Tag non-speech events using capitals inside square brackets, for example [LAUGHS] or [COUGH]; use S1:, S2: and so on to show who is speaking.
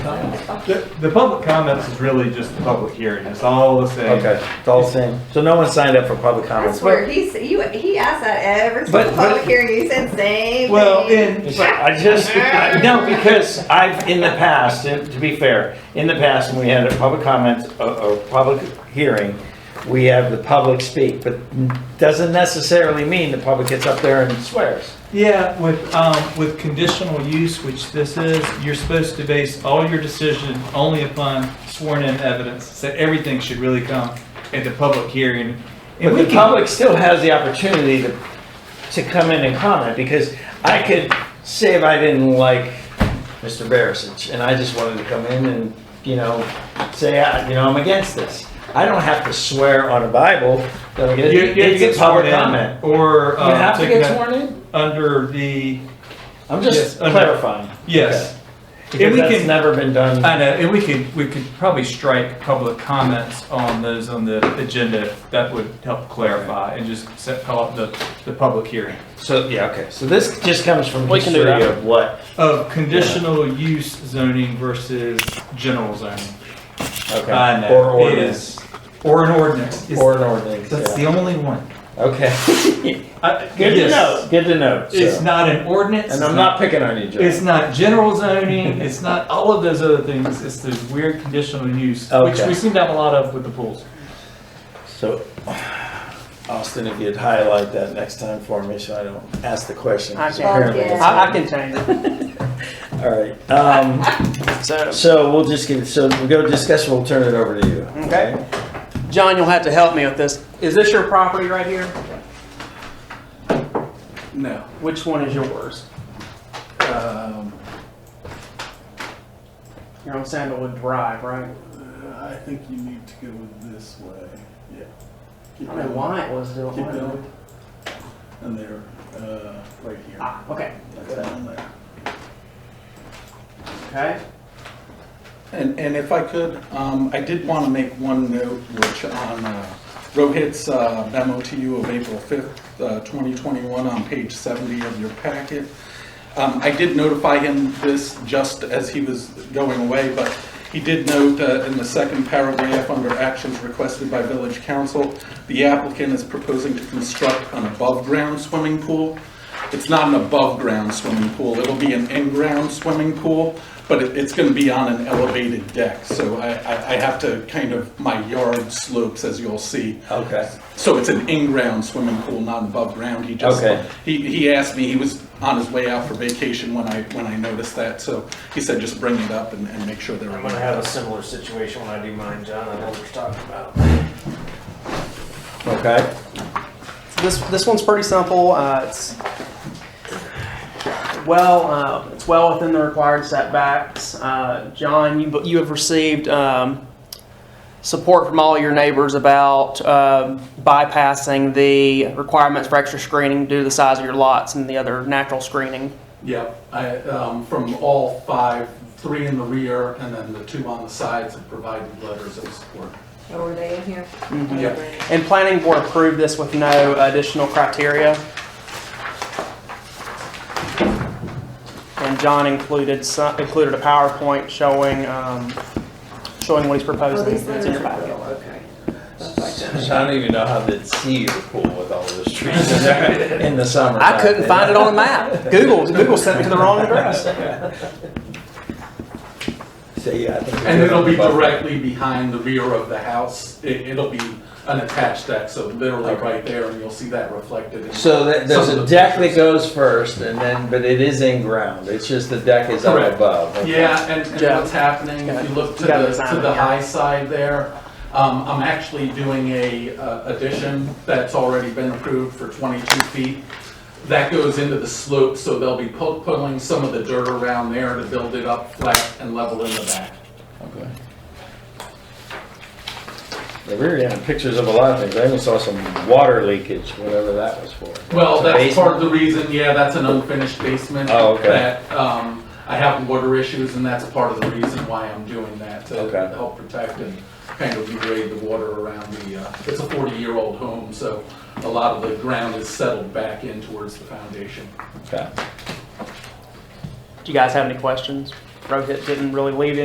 S1: The, the public comments is really just the public hearing, it's all the same.
S2: Okay, it's all the same. So no one signed up for public comment.
S3: That's where he's, you, he asked that every
S2: But-
S3: single
S2: but-
S3: public hearing, he said same thing.
S1: Well, and,
S2: I just, I- no, because I've, in the past, and to be fair, in the past, when we had a public comment, a, a public hearing, we have the public speak, but doesn't necessarily mean the public gets up there and swears.
S1: yeah, with, um, with conditional use, which this is, you're supposed to base all your decision only upon sworn in evidence. So everything should really come at the public hearing.
S2: But
S1: And we
S2: the
S1: can,
S2: public still has the opportunity to, to come in and comment, because I could say if I didn't like Mr. Barasich, and I just wanted to come in and, you know, say, "I- you know, I'm against this. I don't have to swear on a Bible that I'm
S1: you,
S2: gonna,
S1: you get
S2: it's a
S1: sworn
S2: public
S1: in,
S2: comment.
S1: or,
S2: You
S1: uh,
S2: have to
S1: taken
S2: get
S1: up
S2: sworn in?
S1: under the,
S2: I'm
S1: Yes,
S2: just
S1: under-
S2: clarifying.
S1: yes.
S2: Okay. Because
S1: we
S2: that's
S1: can-
S2: never been done.
S1: I know, and we could, we could probably strike public comments on those on the agenda. That would help clarify and just set, call it the, the public hearing.
S2: So, yeah, okay, so this just comes from
S4: We can do
S2: history
S4: that.
S2: of what?
S1: Of conditional use zoning versus general zoning.
S2: Okay.
S1: I know.
S2: Or
S1: It
S2: ordinance,
S1: is- Or an ordinance. It's-
S2: or an ordinance,
S1: That's the
S2: yeah.
S1: only one.
S2: Okay.
S1: I-
S2: Good to
S1: yes.
S2: know, good to know. so.
S1: It's not an ordinance.
S2: And I'm not picking on you, Joe.
S1: It's not general zoning. It's not all of those other things. It's this weird conditional use, which
S2: Okay.
S1: we seem to have a lot of with the pools.
S2: So, Austin, if you'd highlight that next time for me, so I don't ask the question. 'cause
S4: Okay.
S2: apparently it's-
S4: I, I can change it.
S2: All right, um,
S4: [LAUGHS] So,
S2: so we'll just give, so we'll go discuss, we'll turn it over to you.
S4: Okay. John, you'll have to help me with this. Is this your property right here? No. Which one is yours?
S5: Um,
S4: You're on Sandalwood Drive, right?
S5: uh, I think you need to go this way. Yeah.
S4: I
S5: Keep
S4: don't know
S5: going.
S4: why it was doing
S5: Keep
S4: why it-
S5: going. And there, uh, right here.
S4: Ah, okay,
S5: That's down there.
S4: okay.
S5: And, and if I could, um, I did want to make one note, which on uh, Rohit's uh, memo to you of April 5th, uh, 2021, on page 70 of your packet. Um, I did notify him this just as he was going away, but he did note uh, in the second paragraph, under actions requested by village council, the applicant is proposing to construct an above-ground swimming pool. It's not an above-ground swimming pool, it'll be an in-ground swimming pool, but it- it's gonna be on an elevated deck, so I, I I have to kind of, my yard slopes, as you'll see.
S2: Okay.
S5: So it's an in-ground swimming pool, not above-ground, he just,
S2: Okay.
S5: he, he asked me, he was on his way out for vacation when I, when I noticed that, so he said just bring it up and, and make sure they're.
S2: I'm gonna have a similar situation when I do mine, John, I know what you're talking about. Okay,
S4: This, this one's pretty simple. Uh, it's well, uh, it's well within the required setbacks. Uh, John, you, you have received um, support from all your neighbors about uh, bypassing the requirements for extra screening due to the size of your lots and the other natural screening.
S5: Yep, I, um, from all five, three in the rear and then the two on the sides have provided letters of support.
S3: Oh, were they in here?
S5: Yeah.
S4: And planning board approved this with no additional criteria. And John included some, included a PowerPoint showing, um, showing what he's
S3: Oh,
S4: proposing.
S3: these
S4: It's
S3: letters
S4: in your
S3: are
S4: packet.
S3: real, okay. That's like that.
S2: I don't even know how to see your pool with all those trees in there [LAUGHS] in the summer.
S4: I couldn't find it on the map. Google, Google sent it to the wrong address.
S2: So, yeah, I think.
S5: And it'll be
S2: Above-
S5: directly behind the rear of the house. It, it'll be an attached deck, so literally
S2: Okay.
S5: right there, and you'll see that reflected in.
S2: So that, there's
S5: some
S2: a
S5: of the
S2: deck that
S5: pictures.
S2: goes first and then, but it is in ground, it's just the deck is up
S5: Correct.
S2: above. okay.
S5: Yeah, and, and
S4: Yeah.
S5: what's happening, if you look to
S4: You got
S5: the,
S4: the sign
S5: to the
S4: here.
S5: high side there, um, I'm actually doing a uh, addition that's already been approved for twenty-two feet. That goes into the slope, so they'll be pu- pulling some of the dirt around there to build it up flat and level in the back.
S2: Okay. Yeah, we were getting pictures of a lot of things. I even saw some water leakage, whatever that was for.
S5: Well,
S2: It's a
S5: that's
S2: basement?
S5: part of the reason, yeah, that's an unfinished basement.
S2: Oh, okay.
S5: That, um, I have water issues and that's part of the reason why I'm doing that, to
S2: Okay.
S5: help protect and kind of degrade the water around the, uh, it's a forty-year-old home, so a lot of the ground is settled back in towards the foundation.
S2: Okay.
S4: Do you guys have any questions? Rohit didn't really leave